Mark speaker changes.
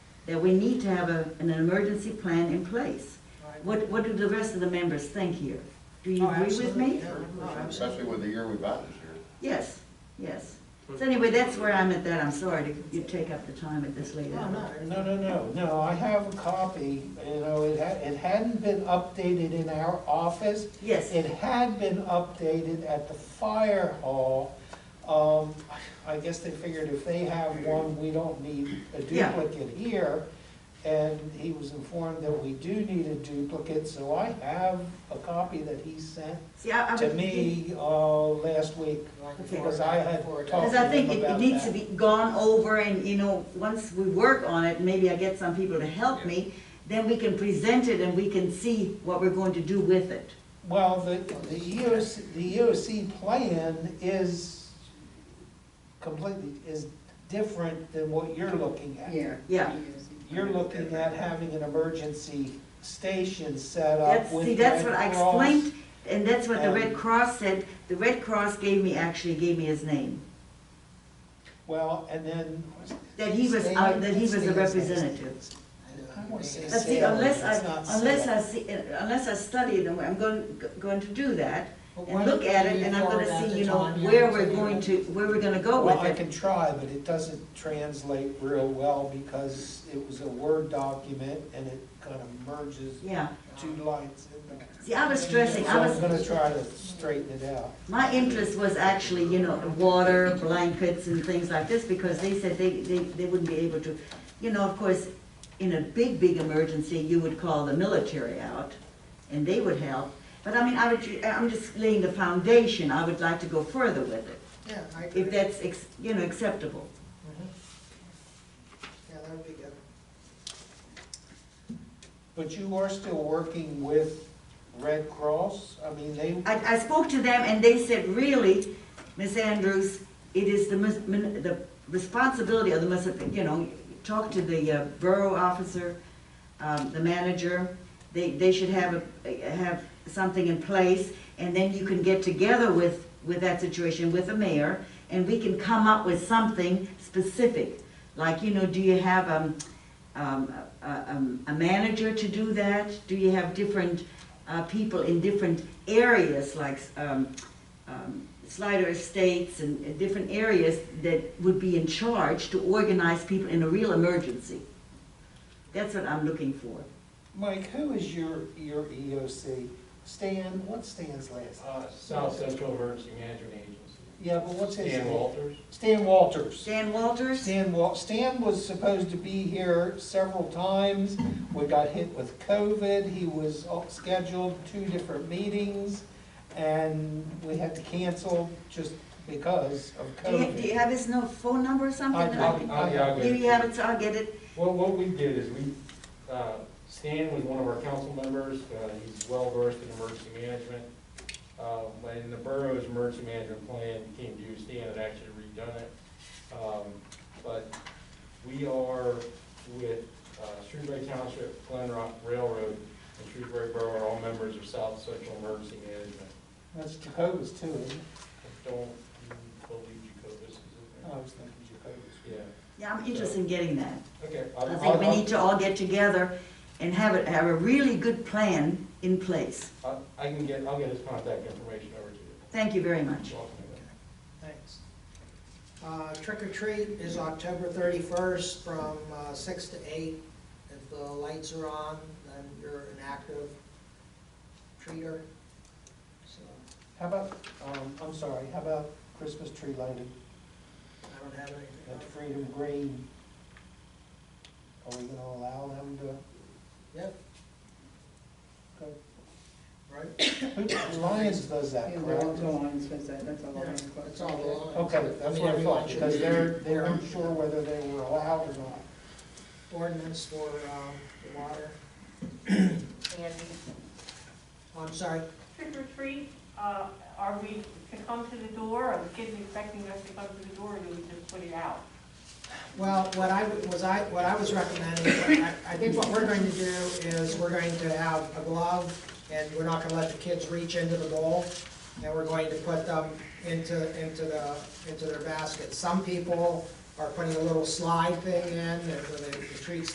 Speaker 1: that we need to have a, an emergency plan in place.
Speaker 2: Right.
Speaker 1: What, what do the rest of the members think here? Do you
Speaker 2: Oh,
Speaker 1: agree with
Speaker 2: absolutely.
Speaker 1: me?
Speaker 2: Yeah, no,
Speaker 3: Especially
Speaker 2: absolutely.
Speaker 3: with the year we've had this year.
Speaker 1: Yes, yes. So anyway, that's where I'm at that. I'm sorry to you take up the time at this late
Speaker 2: No,
Speaker 1: hour.
Speaker 2: no,
Speaker 4: No, no, no, no, I have a copy, you know, it had, it hadn't been updated in our office.
Speaker 1: Yes.
Speaker 4: It had been updated at the fire hall. Um, I guess they figured if they have one, we don't need a
Speaker 1: Yeah.
Speaker 4: duplicate here. And he was informed that we do need a duplicate, so I have a copy that he sent
Speaker 1: See, I, I.
Speaker 4: to
Speaker 1: would-
Speaker 4: me, uh, last week.
Speaker 2: Like
Speaker 1: Okay.
Speaker 2: before-
Speaker 4: Because I had
Speaker 2: before it-
Speaker 4: talked-
Speaker 1: Because I think it, it
Speaker 4: about
Speaker 1: needs to
Speaker 4: that.
Speaker 1: be gone over and, you know, once we work on it, maybe I get some people to help
Speaker 3: Yeah.
Speaker 1: me, then we can present it and we can see what we're going to do with it.
Speaker 4: Well, the, the EOC, the EOC plan is completely, is different than what you're looking at.
Speaker 1: Yeah.
Speaker 4: You're looking at having an emergency station set up
Speaker 1: That's,
Speaker 4: with
Speaker 1: see, that's
Speaker 4: Red
Speaker 1: what I
Speaker 4: Cross.
Speaker 1: explained, and that's what the Red
Speaker 4: and-
Speaker 1: Cross said. The Red Cross gave me, actually gave me his name,
Speaker 4: Well, and then.
Speaker 1: that he was, uh, that he was a
Speaker 4: Stan-
Speaker 1: representative.
Speaker 4: I wanna say
Speaker 1: But see,
Speaker 4: Salem,
Speaker 1: unless
Speaker 4: it's not
Speaker 1: I, unless
Speaker 4: Salem.
Speaker 1: I see, unless I study them, I'm going, going to do that
Speaker 2: But why
Speaker 1: and look
Speaker 2: don't
Speaker 1: at it,
Speaker 2: you
Speaker 1: and I'm
Speaker 2: forward
Speaker 1: gonna
Speaker 2: that to
Speaker 1: see, you know,
Speaker 2: Tanya
Speaker 1: where
Speaker 2: and
Speaker 1: we're
Speaker 2: see
Speaker 1: going
Speaker 2: what-
Speaker 1: to, where we're gonna go
Speaker 4: Well,
Speaker 1: with
Speaker 4: I
Speaker 1: it.
Speaker 4: can try, but it doesn't translate real well because it was a Word document and it kind of merges
Speaker 1: Yeah.
Speaker 4: two lines in there.
Speaker 1: See, I was stressing,
Speaker 4: So
Speaker 1: I
Speaker 4: I'm
Speaker 1: was,
Speaker 4: gonna try to straighten it out.
Speaker 1: my interest was actually, you know, water, blankets and things like this, because they said they, they, they wouldn't be able to. You know, of course, in a big, big emergency, you would call the military out, and they would help. But I mean, I would, I'm just laying the foundation, I would like to go further with it,
Speaker 2: Yeah, I agree.
Speaker 1: if that's, ex- you know, acceptable.
Speaker 2: Mhm. Yeah, that would be good.
Speaker 4: But you are still working with Red Cross? I mean, they,
Speaker 1: I, I spoke to them and they said, really, Miss Andrews, it is the, mis- min- the responsibility of the, munici- you know, talk to the uh, borough officer, um, the manager, they, they should have, a have something in place, and then you can get together with, with that situation, with the mayor, and we can come up with something specific. Like, you know, do you have, um, um, a, um, a manager to do that? Do you have different, uh, people in different areas, like, um, um, Slider Estates and uh, different areas that would be in charge to organize people in a real emergency? That's what I'm looking for.
Speaker 4: Mike, who is your, your EOC? Stan, what's Stan's last? name?
Speaker 5: Uh, South Central Emergency Management Agency.
Speaker 4: Yeah, but what's his
Speaker 5: Dan
Speaker 4: name?
Speaker 5: Walters.
Speaker 4: Stan Walters.
Speaker 1: Stan Walters?
Speaker 4: Stan Wal, Stan was supposed to be here several times. We got hit with COVID. He was all- scheduled two different meetings and we had to cancel just because of
Speaker 1: Do you, do you
Speaker 4: COVID.
Speaker 1: have his no phone number or something?
Speaker 4: I-
Speaker 1: that
Speaker 4: I-
Speaker 1: can-
Speaker 4: I-
Speaker 1: Do you have it, so I'll get it?
Speaker 5: What, what we did is we, uh, Stan was one of our council members, uh, he's well versed in emergency management. Uh, When the borough's emergency management plan came due, Stan had actually redone it. Um, But we are with uh, Shrewsbury Township, Glen Rock Railroad, and Shrewsbury Borough are all members of South Central Emergency Management.
Speaker 4: That's Jacobus too, isn't it?
Speaker 5: I don't believe Jacobus is in
Speaker 4: I was thinking Jacobus.
Speaker 5: there. Yeah,
Speaker 1: Yeah, I'm interested in getting that.
Speaker 5: okay.
Speaker 1: I
Speaker 5: I'll-
Speaker 1: think we
Speaker 5: I'll-
Speaker 1: need to all get together and have it, have a really good plan in place.
Speaker 5: I I can get, I'll get his contact information over to you.
Speaker 1: Thank you very much.
Speaker 5: You're welcome to that.
Speaker 2: Thanks. Uh, Trick or treat is October thirty-first from uh, six to eight. If the lights are on, then you're an active treater. So
Speaker 4: How about, um, I'm sorry, how about Christmas tree lighting
Speaker 2: I don't have anything.
Speaker 4: at Freedom Green? Are we gonna allow them to,
Speaker 2: Yep, right?
Speaker 4: who, Lions does that,
Speaker 6: Yeah,
Speaker 4: correct?
Speaker 6: the lines, was that, that's all.
Speaker 2: Yeah,
Speaker 6: lines.
Speaker 2: That's all the lines.
Speaker 4: Okay, that's
Speaker 2: mean,
Speaker 4: what I
Speaker 2: everyone
Speaker 4: thought,
Speaker 2: should
Speaker 4: because
Speaker 2: be-
Speaker 4: they're, they
Speaker 2: their
Speaker 4: weren't sure whether they were allowed or not.
Speaker 2: Ordinance for um, the water.
Speaker 7: Andy,
Speaker 2: Oh, I'm sorry,
Speaker 7: trick or treat, uh, are we to come to the door, are the kids expecting us to come to the door, or do we just put it out?
Speaker 2: Well, what I was, I, what I was recommending, I, I think what we're going to do is we're going to have a glove and we're not gonna let the kids reach into the bowl and we're going to put them into, into the, into their basket. Some people are putting a little slide thing in, and the the treats